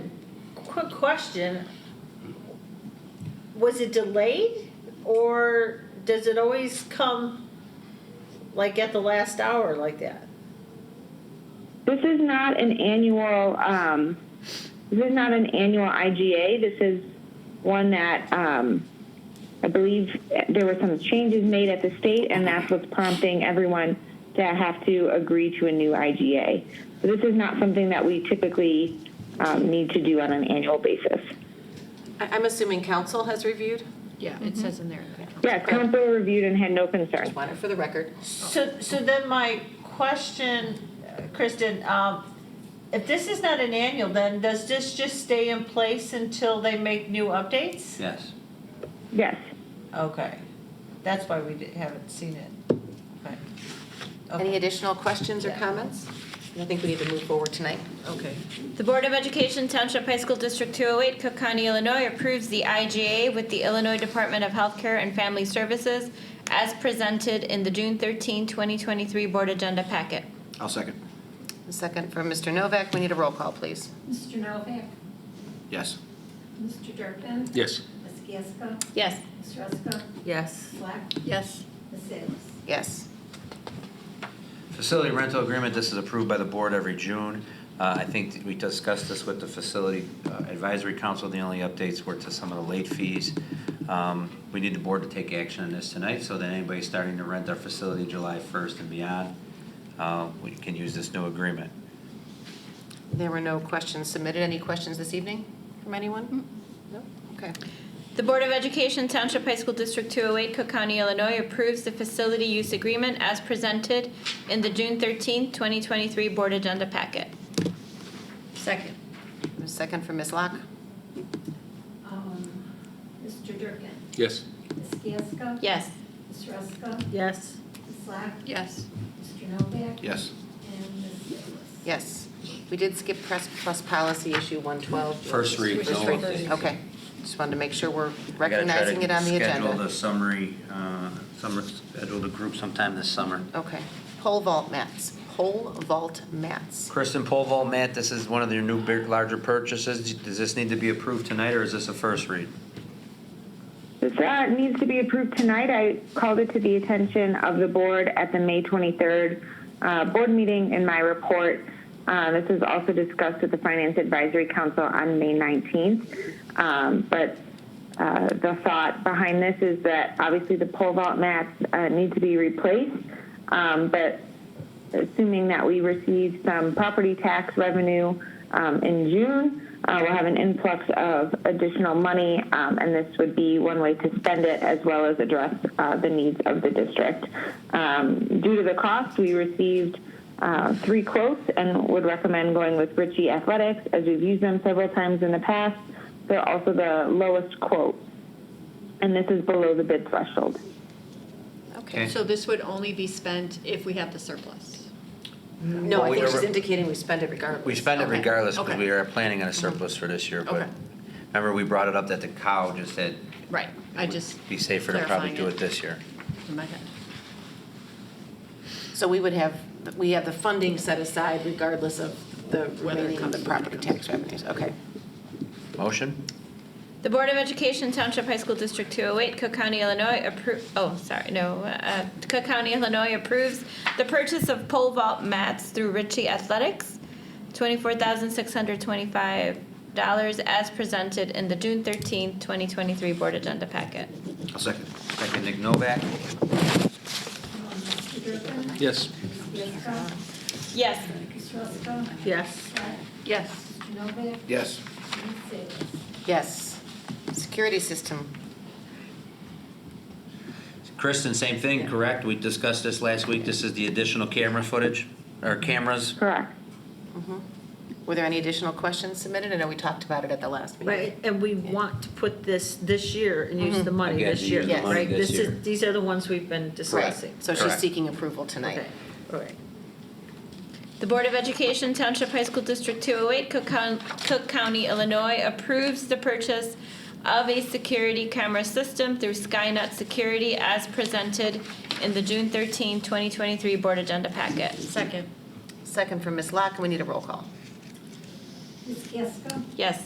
quick question. Was it delayed or does it always come like at the last hour like that? This is not an annual, um, this is not an annual IGA. This is one that, um, I believe there were some changes made at the state and that's what's prompting everyone to have to agree to a new IGA. So this is not something that we typically, um, need to do on an annual basis. I- I'm assuming council has reviewed. Yeah, it says in there. Yes, council reviewed and had no concerns. Want it for the record. So, so then my question, uh, Kristen, um, if this is not an annual, then does this just stay in place until they make new updates? Yes. Yes. Okay, that's why we di- haven't seen it. Okay. Any additional questions or comments? I think we need to move forward tonight. Okay. The Board of Education Township High School District 208, Cook County, Illinois approves the IGA with the Illinois Department of Healthcare and Family Services as presented in the June 13, 2023 Board Agenda Packet. I'll second. A second from Mr. Novak. We need a roll call, please. Mr. Novak? Yes. Mr. Durkin? Yes. Ms. Gasko? Yes. Ms. Ruska? Yes. Ms. Black? Yes. Ms. Salis? Yes. Facility rental agreement, this is approved by the board every June. Uh, I think that we discussed this with the Facility uh, Advisory Council. The only updates were to some of the late fees. Um, We need the board to take action on this tonight so that anybody starting to rent our facility July 1st and beyond, uh, we can use this new agreement. There were no questions submitted. Any questions this evening from anyone? No? Okay. The Board of Education Township High School District 208, Cook County, Illinois approves the facility use agreement as presented in the June 13, 2023 Board Agenda Packet. Second. A second from Ms. Locke. Um, Mr. Durkin? Yes. Ms. Gasko? Yes. Ms. Ruska? Yes. Ms. Black? Yes. Mr. Novak? Yes. And Ms. Salis? Yes. We did skip press plus policy issue 112. First read, First no read. update. Okay. Just wanted to make sure we're I gotta try to recognizing it on the Schedule the agenda. summary, uh, summer, schedule the group sometime this summer. Okay. Pole vault mats. Pole vault mats. Kristen Polval, Matt, this is one of your new big, larger purchases. Does this need to be approved tonight, or is this a first read? This uh, needs to be approved tonight. I called it to the attention of the board at the May 23rd uh, board meeting in my report. Uh, This is also discussed at the Finance Advisory Council on May 19th. Um, But uh, the thought behind this is that obviously the pole vault mats uh, need to be replaced, um, but assuming that we receive some property tax revenue um, in June, uh, we'll have an influx of additional money, um, and this would be one way to spend it as well as address uh, the needs of the district. Um, due to the cost, we received uh, three quotes and would recommend going with Ritchie Athletics as we've used them several times in the past. They're also the lowest quote, and this is below the bid threshold. Okay. So this would only be spent if we have the surplus. No, Well, I we think she's are- indicating we spend it regardless. We spend it Okay. regardless, because okay. we are planning on a surplus for this year, but Okay. remember, we brought it up that the cow just said. Right. I it would just Be safer to probably clarifying do it. it this year. in my head. So we would have, we have the funding set aside regardless of the remaining of the property tax revenues, okay. Motion? The Board of Education Township High School District 208, Cook County, Illinois approve, oh, sorry, no, uh, Cook County, Illinois approves the purchase of pole vault mats through Ritchie Athletics, $24,625 as presented in the June 13, 2023 Board Agenda Packet. I'll second. Second, Nick Novak? Um, Mr. Durkin? Yes. Ms. Gasko? Yes. Ms. Ruska? Yes. Ms. Black? Yes. Mr. Novak? Yes. And Ms. Salis? Yes, security system, Kristen, same thing, correct? We discussed this last week, this is the additional camera footage, or cameras? Correct. were there any additional questions submitted? I know we talked about it at the last meeting. Right, and we want to put this this year and use the money Again, this to year, use the money right? this This year. is, these are the ones we've been discussing. So she's Correct. seeking approval tonight. Okay, all right. The Board of Education Township High School District 208, Cook Coun- Cook County, Illinois approves the purchase of a security camera system through Skynet Security as presented in the June 13, 2023 Board Agenda Packet. Second. Second from Ms. Locke, and we need a roll call. Ms. Gasko? Yes.